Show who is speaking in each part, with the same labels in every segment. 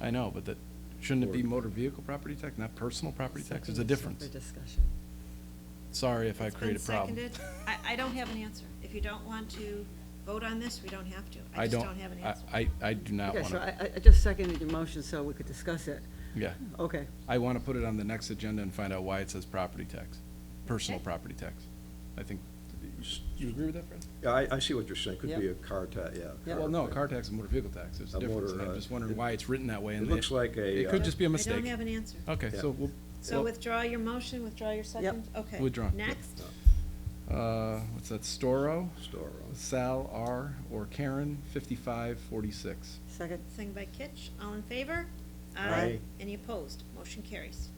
Speaker 1: I know, but that, shouldn't it be motor vehicle property tax, not personal property tax? There's a difference.
Speaker 2: For discussion.
Speaker 1: Sorry if I
Speaker 3: It's been
Speaker 1: create a problem.
Speaker 3: seconded. I, I don't have an answer. If you don't want to vote on this, we don't have to. I
Speaker 1: I
Speaker 3: just
Speaker 1: don't,
Speaker 3: don't have an
Speaker 1: I,
Speaker 3: answer.
Speaker 1: I I do not
Speaker 2: Okay,
Speaker 1: want
Speaker 2: so
Speaker 1: to,
Speaker 2: I, I- I just seconded your motion so we could discuss it.
Speaker 1: yeah.
Speaker 2: Okay,
Speaker 1: I want to put it on the next agenda and find out why it says property tax, personal
Speaker 3: Okay.
Speaker 1: property tax. I think, you agree with that, Fred?
Speaker 4: Yeah, I, I see what you're saying, could be
Speaker 2: Yeah.
Speaker 4: a car tax, yeah.
Speaker 2: Yeah.
Speaker 1: Well, no, car tax and motor vehicle tax, there's a
Speaker 4: A
Speaker 1: difference,
Speaker 4: motor,
Speaker 1: and I'm
Speaker 4: uh,
Speaker 1: just wondering
Speaker 4: it-
Speaker 1: why it's written that way. and
Speaker 4: it looks like a,
Speaker 1: It could
Speaker 4: uh,
Speaker 1: just be a
Speaker 3: I
Speaker 1: mistake.
Speaker 3: don't have an answer.
Speaker 1: Okay,
Speaker 4: Yeah.
Speaker 1: so we'll.
Speaker 3: So
Speaker 1: we'll-
Speaker 3: withdraw your motion, withdraw your second? Okay.
Speaker 1: Withdraw.
Speaker 3: Next,
Speaker 1: Uh, what's that, Storo,
Speaker 4: Store on.
Speaker 1: Sal R, or Karen, fifty-five forty-six.
Speaker 2: second,
Speaker 3: second by Kitch, all in favor?
Speaker 4: Aye.
Speaker 3: Any opposed? Motion carries.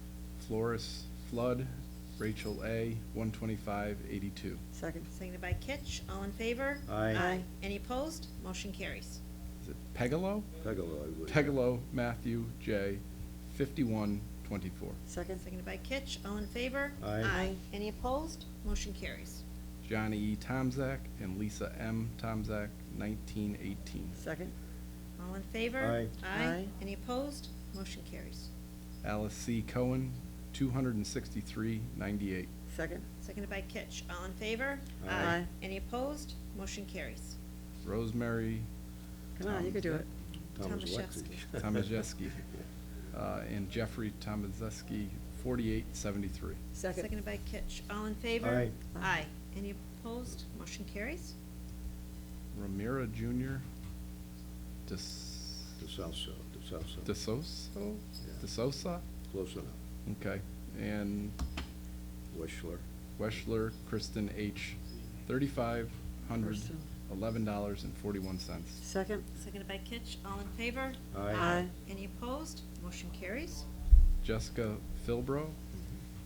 Speaker 1: Flores Flood, Rachel A, one twenty-five eighty-two.
Speaker 2: second,
Speaker 3: Seconded by Kitch, all in favor?
Speaker 4: Aye.
Speaker 2: Aye.
Speaker 3: Any opposed? Motion carries.
Speaker 1: Is it Pegalo?
Speaker 4: Pegalo, I would.
Speaker 1: Pegalo Matthew J, fifty-one twenty-four.
Speaker 2: second,
Speaker 3: Seconded by Kitch, all in favor?
Speaker 4: Aye.
Speaker 2: Aye.
Speaker 3: Any opposed? Motion carries.
Speaker 1: Johnny E. Tomzak and Lisa M. Tomzak, nineteen eighteen.
Speaker 2: second,
Speaker 3: All in favor?
Speaker 4: Aye.
Speaker 2: Aye.
Speaker 3: Any opposed? Motion carries.
Speaker 1: Alice C. Cohen, two hundred and sixty-three ninety-eight.
Speaker 2: second,
Speaker 3: Seconded by Kitch. All in favor?
Speaker 4: Aye.
Speaker 2: Aye.
Speaker 3: Any opposed? Motion carries.
Speaker 1: Rosemary
Speaker 2: come on, you can
Speaker 1: Um,
Speaker 2: do it.
Speaker 4: Thomas
Speaker 3: Tomaszewski.
Speaker 4: Lexi.
Speaker 1: Tomaszewski, uh, and Jeffrey Tomaszewski, forty-eight seventy-three.
Speaker 2: Second,
Speaker 3: Seconded by Kitch. All in favor?
Speaker 4: Aye.
Speaker 2: Aye.
Speaker 3: Aye. Any opposed? Motion carries.
Speaker 1: Ramira Junior, Des,
Speaker 4: The South Side, the South Side.
Speaker 1: DeSoso?
Speaker 4: Yeah.
Speaker 1: DeSosa?
Speaker 4: Close enough.
Speaker 1: Okay, and
Speaker 4: Wishler.
Speaker 1: Weschler Kristen H., thirty-five hundred,
Speaker 2: Kristen.
Speaker 1: eleven dollars and forty-one cents.
Speaker 2: second,
Speaker 3: Seconded by Kitch. All in favor?
Speaker 4: Aye.
Speaker 2: Aye.
Speaker 3: Any opposed? Motion carries.
Speaker 1: Jessica Philbro,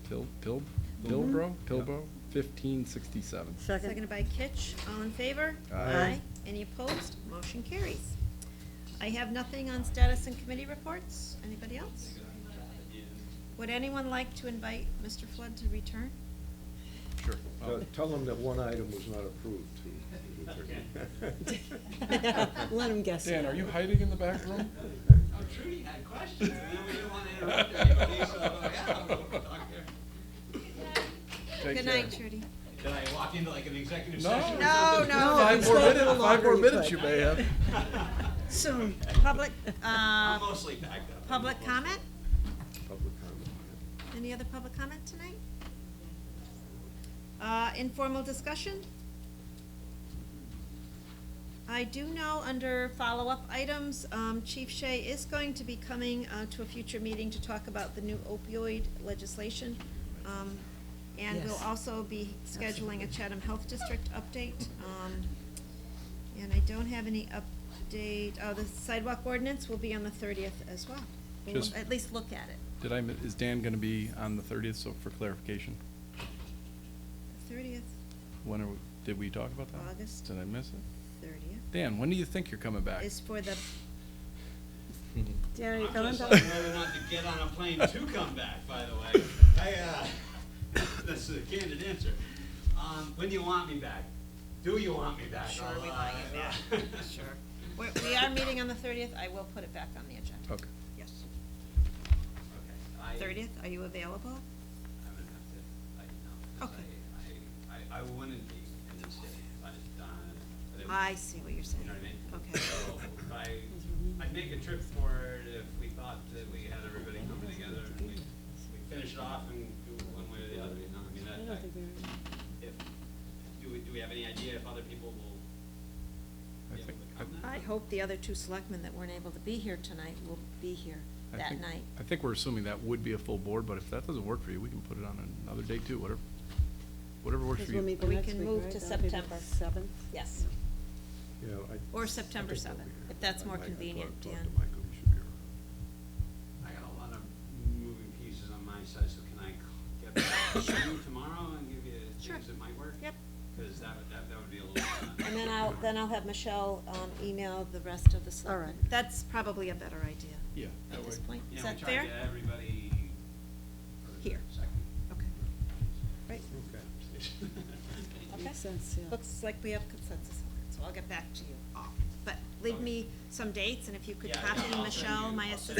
Speaker 1: Pil, Pil, Pilbro, Pilbro, fifteen sixty-seven.
Speaker 2: second,
Speaker 3: Seconded by Kitch. All in favor?
Speaker 1: Aye.
Speaker 3: Any opposed? Motion carries. I have nothing on status and committee reports. Anybody else? Would anyone like to invite Mr. Flood to return?
Speaker 1: Sure.
Speaker 4: Uh, Tell them that one item was not approved to.
Speaker 2: let him guess.
Speaker 1: Dan, are you hiding in the back room?
Speaker 5: Oh, Trudy had questions, and then we didn't want to interrupt anybody, so, uh, yeah, we'll talk here.
Speaker 1: Take
Speaker 3: Good
Speaker 1: care.
Speaker 3: night, Trudy.
Speaker 5: Did I walk into like an executive
Speaker 1: No.
Speaker 5: session? or
Speaker 1: No,
Speaker 5: something?
Speaker 2: no.
Speaker 1: Five
Speaker 2: you
Speaker 1: more
Speaker 2: stayed a
Speaker 1: minutes,
Speaker 2: little
Speaker 1: five more
Speaker 2: longer, you
Speaker 1: minutes you
Speaker 2: could.
Speaker 1: may have.
Speaker 2: Soon.
Speaker 3: Public, uh,
Speaker 5: I'm mostly packed up.
Speaker 3: public comment?
Speaker 4: Public comment.
Speaker 3: Any other public comment tonight? Uh, informal discussion? I do know under follow-up items, um, Chief Shea is going to be coming, uh, to a future meeting to talk about the new opioid legislation. Um, and we'll
Speaker 2: Yes.
Speaker 3: also be scheduling a
Speaker 2: Absolutely.
Speaker 3: Chatham Health District update, um, and I don't have any update, oh, the sidewalk ordinance will be on the thirtieth as well. We'll
Speaker 1: Just-
Speaker 3: at least look at it.
Speaker 1: Did I, mi- is Dan gonna be on the thirtieth, so for clarification?
Speaker 3: The thirtieth,
Speaker 1: When are, we- did we talk about that?
Speaker 3: August.
Speaker 1: Did I miss it?
Speaker 3: thirtieth
Speaker 1: Dan, when do you think you're coming back?
Speaker 3: is for the,
Speaker 2: Dan, are you
Speaker 5: I'm
Speaker 2: coming
Speaker 5: just
Speaker 2: back?
Speaker 5: deciding whether or not to get on a plane to come back, by the way. I, uh, that's a candid answer. Um, when do you want me back? Do you want me back?
Speaker 3: sure,
Speaker 5: I'll,
Speaker 3: we
Speaker 5: uh,
Speaker 3: want you back, sure. We're, we are meeting on the thirtieth, I will put it back on the agenda.
Speaker 1: Okay.
Speaker 3: Yes.
Speaker 5: Okay, I-
Speaker 3: Thirtieth, are you available?
Speaker 5: I'm gonna have to, I, no, 'cause
Speaker 3: Okay.
Speaker 5: I, I, I, I wouldn't be in this city, if I, uh, but it would-
Speaker 3: I see what you're saying.
Speaker 5: You know what I mean?
Speaker 3: Okay.
Speaker 5: So, I, I'd make a trip for it if we thought that we had everybody coming together and we, we finish it off and do it one way or the other, you know, I mean,
Speaker 2: I
Speaker 5: that,
Speaker 2: don't think
Speaker 5: that,
Speaker 2: they're-
Speaker 5: if, do we, do we have any idea if other people will
Speaker 1: I
Speaker 5: be able
Speaker 1: think-
Speaker 5: to
Speaker 1: I-
Speaker 5: come then?
Speaker 3: I hope the other two selectmen that weren't able to be here tonight will be here
Speaker 1: I
Speaker 3: that
Speaker 1: think-
Speaker 3: night.
Speaker 1: I think we're assuming that would be a full board, but if that doesn't work for you, we can put it on another day too, whatever, whatever works
Speaker 2: Because
Speaker 1: for
Speaker 2: we'll
Speaker 1: you.
Speaker 2: meet the
Speaker 3: We
Speaker 2: next
Speaker 3: can
Speaker 2: week,
Speaker 3: move
Speaker 2: right?
Speaker 3: to
Speaker 2: That'll be the
Speaker 3: September.
Speaker 2: Seventh?
Speaker 3: Yes,
Speaker 4: You know, I-
Speaker 3: Or
Speaker 4: I
Speaker 3: September
Speaker 4: think I'll be
Speaker 3: 7th,
Speaker 4: here.
Speaker 3: if that's
Speaker 4: I
Speaker 3: more
Speaker 4: might- I thought-
Speaker 3: convenient,
Speaker 4: talked to
Speaker 3: Dan.
Speaker 4: Michael, he should be around.
Speaker 5: I got a lot of moving pieces on my side, so can I c- get back to you tomorrow and give you
Speaker 3: Sure.
Speaker 5: things that might work?
Speaker 3: yep.
Speaker 5: Because that would, that, that would be a little. uh,
Speaker 3: And then I'll, then I'll have Michelle, um, email the rest of the
Speaker 2: All
Speaker 3: selectmen.
Speaker 2: right.
Speaker 3: That's probably a better idea
Speaker 1: Yeah.
Speaker 3: at this point.
Speaker 5: You
Speaker 3: Is
Speaker 5: know,
Speaker 3: that fair?
Speaker 5: We try to get everybody. for the
Speaker 3: Here.
Speaker 5: Second.
Speaker 3: Okay, right. Okay.
Speaker 2: Makes sense, yeah.
Speaker 3: Looks like we have consensus on it, so I'll get back to you all. But leave me some dates, and if you could
Speaker 5: Oh. Yeah, yeah, I'll
Speaker 3: copy
Speaker 5: send
Speaker 3: Michelle,
Speaker 5: you-
Speaker 3: my
Speaker 5: I'll send
Speaker 3: assistant.